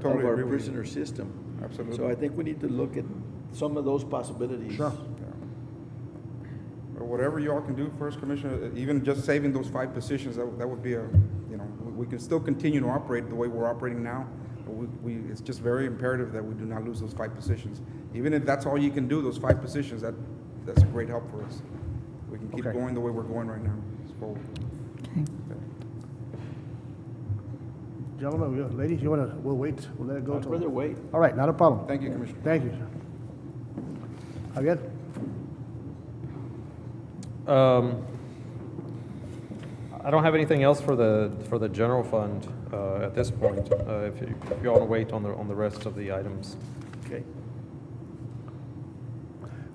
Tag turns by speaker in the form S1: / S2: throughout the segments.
S1: Totally
S2: of our
S1: agree with you.
S2: prisoner system.
S1: Absolutely.
S2: So I think we need to look at some of those possibilities.
S1: Sure. Or Whatever y'all can do first, Commissioner, uh, even just saving those five positions, that, would- that would be a, you know, we- we can still continue to operate the way we're operating now. but We, we, it's just very imperative that we do not lose those five positions. Even if that's all you can do, those five positions, that, that's a great help for us. We can keep
S3: Okay.
S1: going the way we're going right now. It's bold.
S4: Okay.
S3: Gentlemen, we- ladies, you want to, we'll wait, we'll let it go
S2: I'd
S3: till...
S2: rather wait.
S3: All right, not a problem.
S1: Thank you, Commissioner.
S3: Thank you, sir. Javier?
S5: Um, I don't have anything else for the, for the general fund uh, at this point, Uh, if you if you want to wait on the, on the rest of the items.
S2: Okay.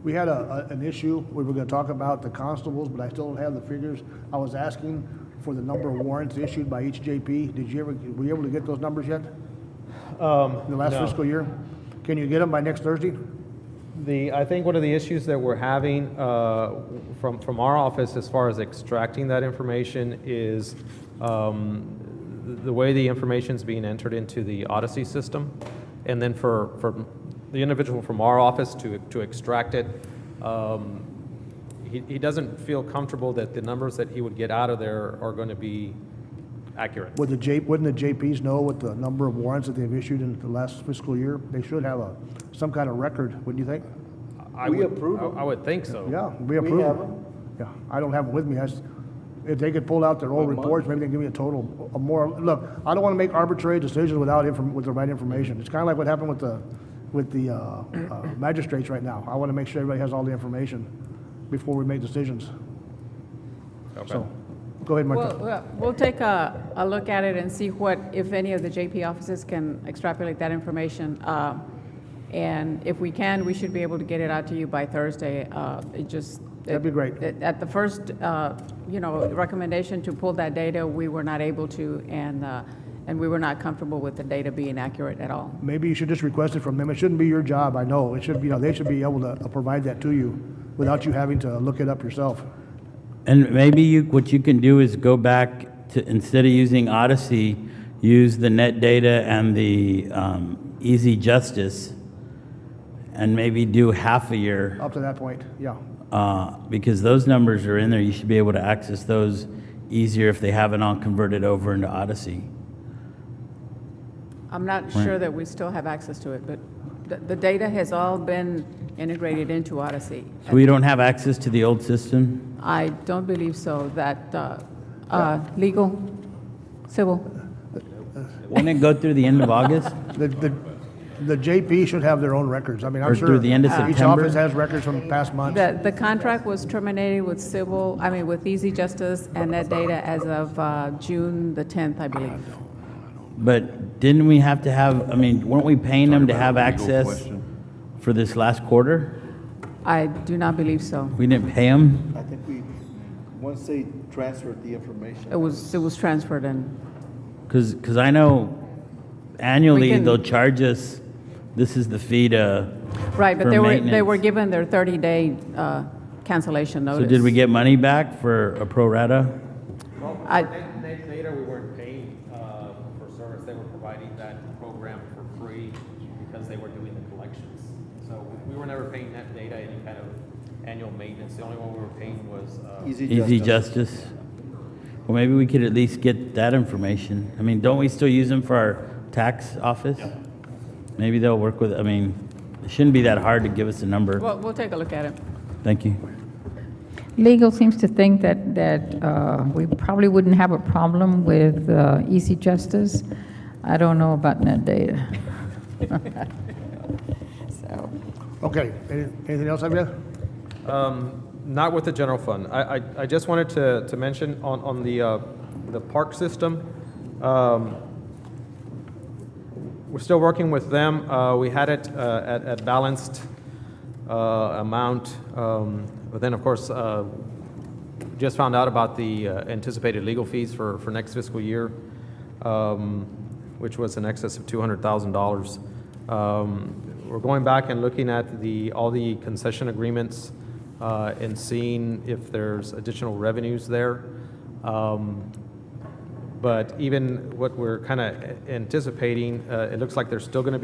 S3: We had a, a- an issue, we were gonna talk about the constables, but I still don't have the figures. I was asking for the number of warrants issued by each JP. Did you ever, were you able to get those numbers yet? In the last fiscal year? Can you get them by next Thursday?
S5: The, I think one of the issues that we're having uh, from, from our office as far as extracting that information is um, the- the way the information's being entered into the Odyssey system. And then for, for the individual from our office to, to extract it, um, he, he doesn't feel comfortable that the numbers that he would get out of there are going to be accurate.
S3: Would the J, wouldn't the JPs know what the number of warrants that they've issued in the last fiscal year? They should have a, some kind of record, wouldn't you think?
S5: I
S2: We
S5: would-
S2: approve
S5: I-
S2: them.
S5: I would think so.
S3: Yeah, we approve.
S2: have
S3: Yeah, I don't have them with me. I s if they could pull out their old
S2: By month?
S3: reports, maybe they can give me a total, a more, look, I don't want to make arbitrary decisions without inform, with the right information. It's kind of like what happened with the, with the, uh, uh, magistrates right now. I want to make sure everybody has all the information before we make decisions. So, go ahead,
S4: Well,
S3: Martha.
S4: well, we'll take a, a look at it and see what, if any of the JP offices can extrapolate that information. Uh, And if we can, we should be able to get it out to you by Thursday. Uh, It just.
S3: That'd be great.
S4: it- At the first, uh, you know, recommendation to pull that data, we were not able to, and, uh, and we were not comfortable with the data being accurate at all.
S3: Maybe you should just request it from them. It shouldn't be your job, I know. It should, be- you know, they should be able to uh, provide that to you without you having to look it up yourself.
S6: And maybe you, what you can do is go back to, instead of using Odyssey, use the net data and the um, Easy Justice, and maybe do half a year,
S3: Up to that point, yeah.
S6: uh, because those numbers are in there. You should be able to access those easier if they haven't all converted over into Odyssey.
S4: I'm not sure that we still have access to it, but the, the data has all been integrated into Odyssey.
S6: So we don't have access to the old system.
S4: I don't believe so, that, uh, uh, legal, civil,
S6: Wouldn't it go through the end of August?
S3: The, the, the JP should have their own records. I mean, I'm
S6: Or
S3: sure.
S6: through the end of
S3: Each
S6: September?
S3: office has records from past months.
S4: the, the contract was terminated with civil, I mean, with Easy Justice and that data as of, uh, June the tenth, I believe.
S6: But didn't we have to have, I mean, weren't we paying them to have access for this last quarter?
S4: I do not believe so.
S6: We didn't pay them?
S2: I think we, once they transferred the information.
S4: It was, it was transferred and,
S6: Because, because I know annually
S4: can-
S6: they'll charge us, this is the fee to.
S4: right, but
S6: for
S4: they were, they
S6: maintenance.
S4: were given their thirty-day, uh, cancellation notice.
S6: So did we get money back for a pro rata?
S4: I-
S5: Later, we weren't paying uh, for service, they were providing that program for free because they were doing the collections. So we- we were never paying that data any kind of annual maintenance, the only one we were paying was. uh,
S6: Easy justice? Well, maybe we could at least get that information. I mean, don't we still use them for our tax office? Maybe they'll work with, I mean, it shouldn't be that hard to give us a number.
S4: Well, we'll take a look at it.
S6: Thank you.
S7: Legal seems to think that, that uh, we probably wouldn't have a problem with uh, easy justice. I don't know about net data. So,
S3: Okay, any- anything else, Javier?
S5: Um, Not with the general fund. I, I- I just wanted to, to mention on, on the, uh, the park system, um, we're still working with them. Uh, We had it uh, at, at balanced uh, amount, um, but then, of course, uh, just found out about the uh, anticipated legal fees for, for next fiscal year, um, which was in excess of $200,000. Um, We're going back and looking at the, all the concession agreements uh, and seeing if there's additional revenues there. Um, but even what we're kind of anticipating, uh, it looks like there's still going to be.